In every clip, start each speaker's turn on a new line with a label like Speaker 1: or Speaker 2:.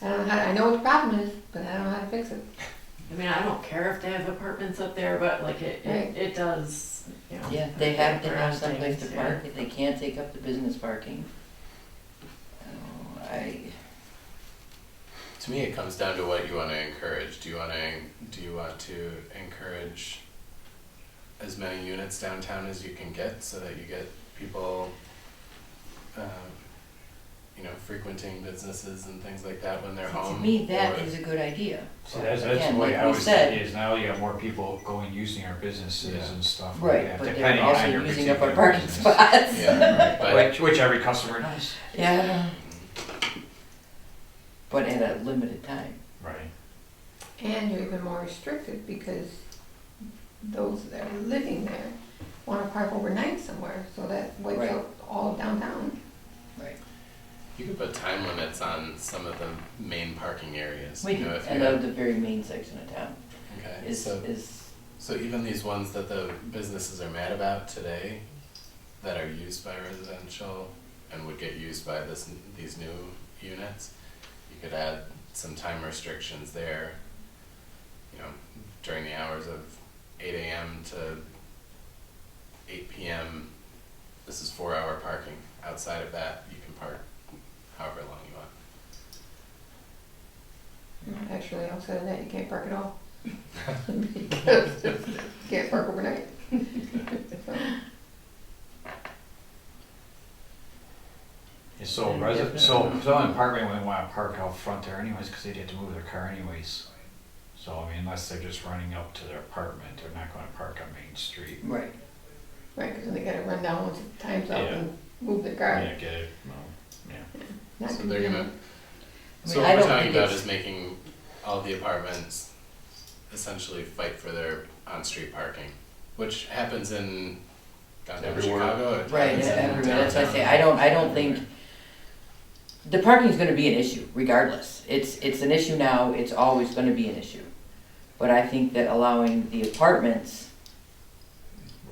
Speaker 1: I, I know what the problem is, but I don't know how to fix it.
Speaker 2: I mean, I don't care if they have apartments up there, but like it,
Speaker 1: Right.
Speaker 2: it, it does, you know.
Speaker 3: Yeah, they have to have
Speaker 2: garage
Speaker 3: someplace to
Speaker 2: things, yeah.
Speaker 3: park, if they can't take up the business parking. Oh, I,
Speaker 4: To me, it comes down to what you want to encourage. Do you want to do you want to encourage as many units downtown as you can get, so that you get people, um, you know, frequenting businesses and things like that when they're
Speaker 3: to
Speaker 4: home.
Speaker 3: me, that
Speaker 4: Um, or-
Speaker 3: is a good idea.
Speaker 5: See, that's, that's
Speaker 3: Again,
Speaker 5: the way
Speaker 3: like
Speaker 5: I
Speaker 3: we
Speaker 5: was
Speaker 3: said-
Speaker 5: thinking is now you got more people going, using our businesses
Speaker 4: Yeah.
Speaker 5: and stuff like
Speaker 3: Right,
Speaker 5: that,
Speaker 3: but they're
Speaker 5: depending on
Speaker 3: also
Speaker 5: your
Speaker 3: using up our
Speaker 5: particular
Speaker 3: parking
Speaker 5: business.
Speaker 3: spots.
Speaker 4: Yeah, but
Speaker 5: Which, which every customer knows.
Speaker 3: Yeah. But at a limited time.
Speaker 5: Right.
Speaker 1: And you're even more restricted because those that are living there want to park overnight somewhere, so that
Speaker 3: Right.
Speaker 1: wipes out all downtown.
Speaker 3: Right.
Speaker 4: you could put time limits on some of the main parking areas.
Speaker 3: We
Speaker 4: you
Speaker 3: can,
Speaker 4: know, if
Speaker 3: and
Speaker 4: you
Speaker 3: of
Speaker 4: had,
Speaker 3: the very main section of town
Speaker 4: okay,
Speaker 3: is,
Speaker 4: so
Speaker 3: is,
Speaker 4: So even these ones that the businesses are mad about today, that are used by residential and would get used by this, these new units, you could add some time restrictions there. You know, during the hours of eight AM to eight PM, this is four hour parking. Outside of that, you can park however long you want.
Speaker 1: Actually, outside of that, you can't park at all. Because you Can't park overnight. So,
Speaker 5: And so
Speaker 3: Yeah,
Speaker 5: resi- so,
Speaker 3: definitely.
Speaker 5: so an apartment wouldn't wanna park out front there anyways, cause they'd have to move their car anyways. So, I mean, unless they're just running up to their apartment, they're not gonna park on Main Street.
Speaker 3: right.
Speaker 1: Right, because they gotta run down once the time's up
Speaker 5: Yeah.
Speaker 1: and move their
Speaker 5: Yeah,
Speaker 1: car.
Speaker 5: get it, well, yeah.
Speaker 1: Not
Speaker 4: So they're gonna-
Speaker 1: convenient.
Speaker 3: I
Speaker 4: So
Speaker 3: mean,
Speaker 4: what
Speaker 3: I
Speaker 4: we're
Speaker 3: don't
Speaker 4: talking
Speaker 3: think
Speaker 4: about
Speaker 3: it's-
Speaker 4: is making all the apartments essentially fight for their on-street parking, which happens in downtown
Speaker 6: Everywhere.
Speaker 4: Chicago. it
Speaker 3: Right,
Speaker 4: happens in
Speaker 3: everywhere, that's why I say,
Speaker 4: downtown.
Speaker 3: I don't, I don't think, the parking's gonna be an issue regardless. It's, it's an issue now, it's always gonna be an issue. But I think that allowing the apartments,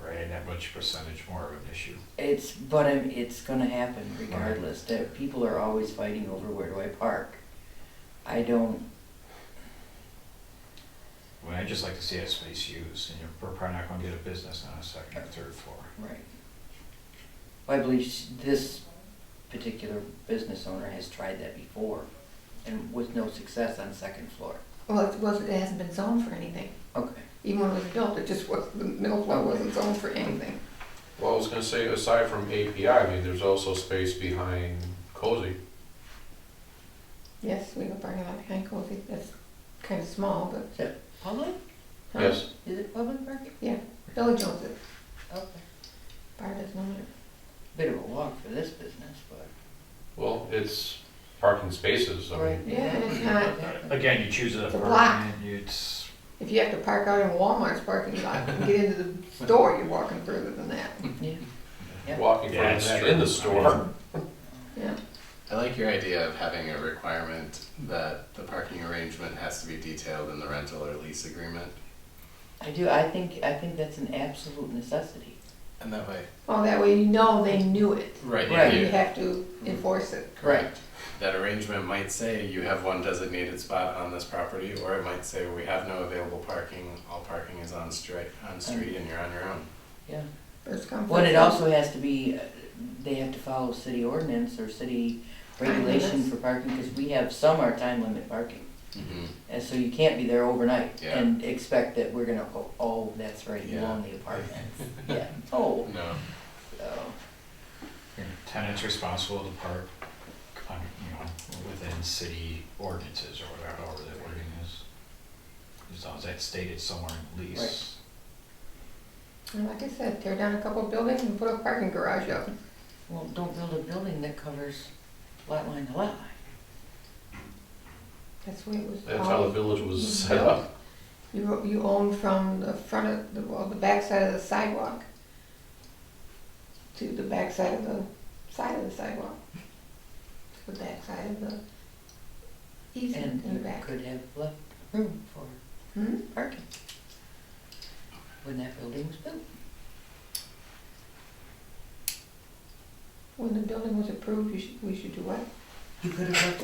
Speaker 5: Right, and that much percentage more of an issue.
Speaker 3: it's, but um, it's gonna happen regardless, that people are always fighting over where do I park. I don't,
Speaker 5: I mean, I'd just like to see that space used, and you're we're probably not gonna get a business on a second or third floor.
Speaker 3: right. I believe sh- this particular business owner has tried that before and with no success on second floor.
Speaker 1: Well, it wasn't, it hasn't been zoned for anything.
Speaker 3: Okay,
Speaker 1: Even when it was adult, it just was, the middle floor wasn't zoned for anything.
Speaker 6: Well, I was gonna say, aside from API, I mean, there's also space behind Cozy.
Speaker 1: Yes, we have a parking lot behind Cozy, that's kind of small, but.
Speaker 3: public,
Speaker 1: huh?
Speaker 6: Yes,
Speaker 3: is it public parking?
Speaker 1: Billy Jones is,
Speaker 3: Okay.
Speaker 1: bar doesn't own it.
Speaker 3: Bit of a walk for this business, but.
Speaker 6: well, it's parking spaces, I mean,
Speaker 1: Yeah, and it's not,
Speaker 5: Again, you choose an
Speaker 1: It's a block.
Speaker 5: apartment, it's,
Speaker 1: if you have to park out in Walmart's parking lot and get into the store, you're walking further than that.
Speaker 3: Yeah. Yeah.
Speaker 6: walking
Speaker 5: Yeah,
Speaker 6: from
Speaker 5: it's
Speaker 6: that
Speaker 5: true.
Speaker 6: in
Speaker 5: I
Speaker 6: the
Speaker 5: mean-
Speaker 6: store.
Speaker 1: Yeah,
Speaker 4: I like your idea of having a requirement that the parking arrangement has to be detailed in the rental or lease agreement,
Speaker 3: I do, I think, I think that's an absolute necessity.
Speaker 4: and that way.
Speaker 1: well, that way you know they knew it,
Speaker 4: Right.
Speaker 3: Right.
Speaker 1: you
Speaker 4: you-
Speaker 1: have to enforce it.
Speaker 4: Correct. That arrangement might say you have one designated spot on this property, or it might say we have no available parking, all parking is on street, on street and you're on your own.
Speaker 3: Yeah.
Speaker 1: First come,
Speaker 3: But
Speaker 1: first
Speaker 3: it
Speaker 1: served.
Speaker 3: also has to be, uh, they have to follow city ordinance or city regulation
Speaker 1: limits.
Speaker 3: for parking, because we have some are time limit parking.
Speaker 4: Mm-hmm.
Speaker 3: And so you can't be there overnight
Speaker 4: Yeah.
Speaker 3: and expect that we're gonna go, oh, that's right, you
Speaker 4: Yeah.
Speaker 3: own the apartment. Yeah, oh,
Speaker 4: No.
Speaker 3: so,
Speaker 5: your tenant's responsible to park on, you know, within city ordinances or whatever, however that wording is. As long as that's stated somewhere in the lease.
Speaker 1: And Like I said, tear down a couple of buildings and put a parking garage up.
Speaker 3: well, don't build a building that covers lot line to lot line.
Speaker 1: That's the way it was.
Speaker 6: That's how the
Speaker 1: all-
Speaker 6: village was set up.
Speaker 1: You, you own from the front of, the well, the backside of the sidewalk to the backside of the side of the sidewalk. To the backside of the easement
Speaker 3: And
Speaker 1: in the
Speaker 3: you
Speaker 1: back.
Speaker 3: could have left room for
Speaker 1: Hmm?
Speaker 3: parking when that building was built.
Speaker 1: When the building was approved, you should, we should do what?
Speaker 3: You could have left